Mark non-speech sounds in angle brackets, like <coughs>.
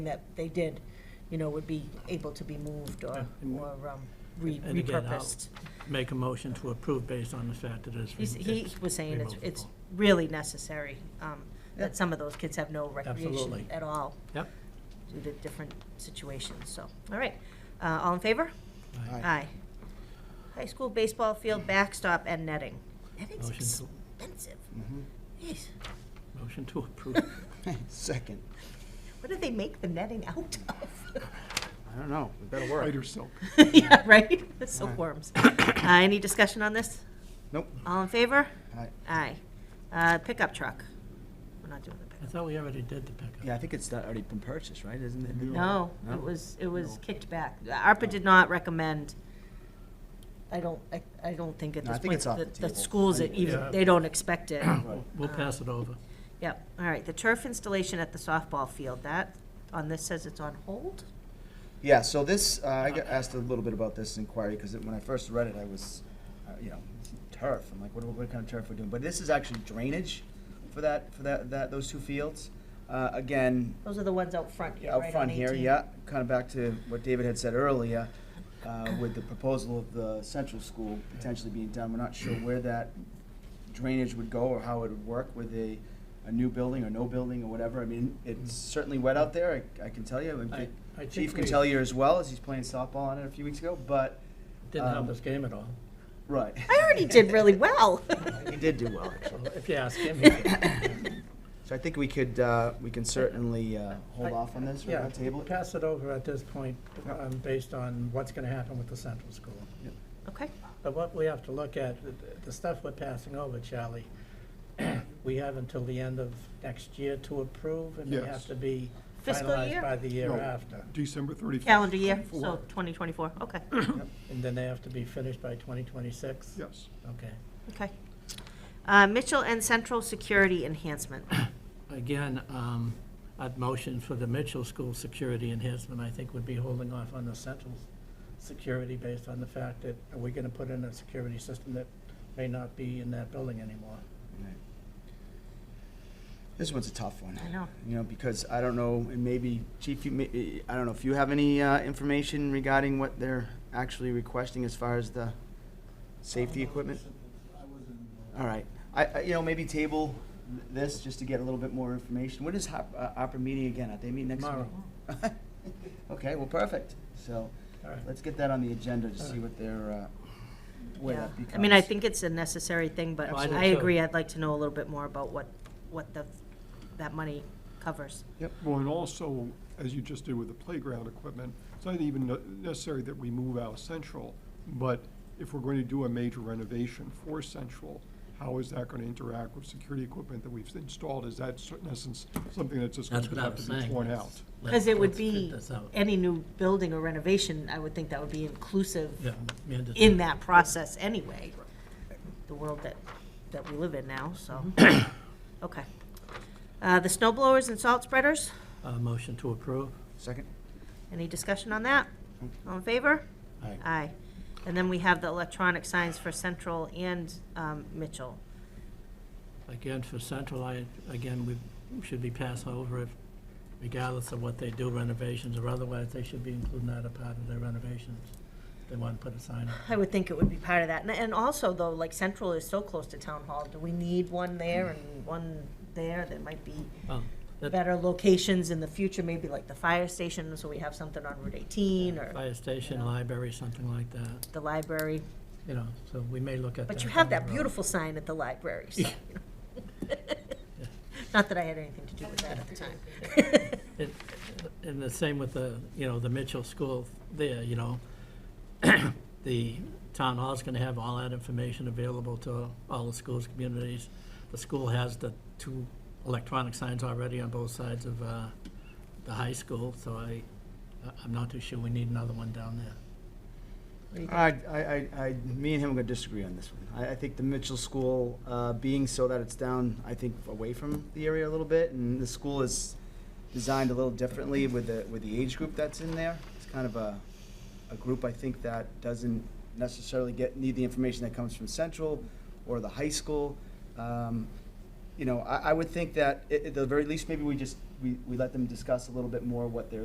that they did, you know, would be able to be moved or, and- or um, re- And again, I'll- repurposed. make a motion to approve based on the fact that it's. He's- He was saying it's, it's removable. really necessary, um, Yeah. that some of those kids have no recreation Absolutely. at all. Yep. Due to different situations, so, all right. Uh, all in favor? Aye. Aye. High school baseball field backstop and netting. Netting's Motion to- expensive. Mm-hmm. Jeez, Motion to approve. <laughs> Second. <laughs> what do they make the netting out <laughs> of? <laughs> I don't know. It better work. Spider silk. Yeah, right? <laughs> <coughs> Silkworms. Uh, any discussion on this? Nope. All in favor? Aye. Aye. Uh, pickup truck. We're not doing the I pickup. thought we already did the pickup. Yeah, I think it's not already been purchased, right? Isn't it? No, No? it was, it was kicked back. ARPA did not recommend, I don't, I, I don't think at No, I this think point, it's off the, the the table. schools I- are even, Yeah. they don't expect it. Right. We'll pass it over. Yep, all right, the turf installation at the softball field, that, on this says it's on hold? Yeah, so this, uh, I got asked a little bit about this inquiry, because when I first read it, I was, uh, you know, turf, I'm like, what, what kind of turf we're doing? But this is actually drainage for that, for that, that, those two fields. Uh, Again, Those are the ones out front here, right out on front here, 18. yeah, kind of back to what David had said earlier, uh, with the proposal of the central school potentially being done, we're not sure where that drainage would go or how it would work with a, a new building or no building or whatever, I mean, it's certainly wet out there, I, I can tell you, I- I and think Chief can we- tell you as well, as he's playing softball on it a few weeks ago, but, Didn't help Um, his game at all. <laughs> right. I already did <laughs> really well. He did do well, actually. Well, If you ask <laughs> him. he did. So I think we could, uh, we can certainly, uh, hold I- off on this, or Yeah, not table it. pass it over at this point, Yeah. um, based on what's gonna happen with the central school. Okay, But what we have to look at, the- the stuff we're passing over, Charlie, <clears throat> we have until the end of next year to approve, and they have Yes. to be Fiscal year? finalized by the year No, after. December 31st. calendar year, so Four. 2024, okay, And then they have to be finished by twenty twenty-six? Yes. Okay. okay. Uh, Mitchell and Central Security Enhancement. Again, um, I'd motion for the Mitchell School security enhancement, I think would be holding off on the central security based on the fact that, are we gonna put in a security system that may not be in that building anymore? Right. This one's a tough one. I know. You know, because I don't know, and maybe Chief, you, may- I don't know if you have any uh, information regarding what they're actually requesting as far as the safety equipment? All right. I, I, you know, maybe table th- this just to get a little bit more information. When is Hop- uh, Opera meeting again? Are they meeting next week? <laughs> Tomorrow. Okay, well, perfect. So All right. let's get that on the agenda to see what their, uh, where Yeah, that becomes. I mean, I think it's a necessary thing, but Well, I do I too. agree, I'd like to know a little bit more about what, what the, that money covers. Well, and also, as you just did with the playground equipment, it's not even ne- necessary that we move out Central, but if we're going to do a major renovation for Central, how is that going to interact with security equipment that we've installed? Is that, cer- in essence, something that's just going That's to what I have was to be saying. torn out? Let's- Because it would let's get be, this out. any new building or renovation, I would think that would be inclusive Yeah, mandatory. in that process anyway. The world that, that we live in now, so, Mm-hmm. <coughs> okay. Uh, the snow blowers and salt spreaders, Uh, motion to approve. Second? any discussion on that? All in favor? Aye. Aye. And then we have the electronic signs for Central and, um, Mitchell. Again, for Central, I, again, we should be passed over if, regardless of what they do renovations or otherwise, they should be including that a part of their renovations. They want to put a sign up. I would think it would be part of that. And, and also though, like Central is so close to Town Hall, do we need one there and one there that might be Well, that better locations in the future, maybe like the fire station, so we have something on Route eighteen or Fire station, library, something like that, the library? you know, so we may look at that. But you have down that the road. beautiful sign at the library, so, you know. <laughs> Not that I had anything to do with that at the <laughs> time. It- And the same with the, you know, the Mitchell School there, you know. <coughs> The town hall's gonna have all that information available to all the schools, communities. The school has the two electronic signs already on both sides of uh, the high school, so I, I- I'm not too sure we need another one down there. I, I, I, I- me and him are gonna disagree on this one. I, I think the Mitchell School, uh, being so that it's down, I think, away from the area a little bit, and the school is designed a little differently with the, with the age group that's in there. It's kind of a, a group, I think, that doesn't necessarily get, need the information that comes from Central or the high school. Um, you know, I, I would think that, at, at the very least, maybe we just we, we let them discuss a little bit more what their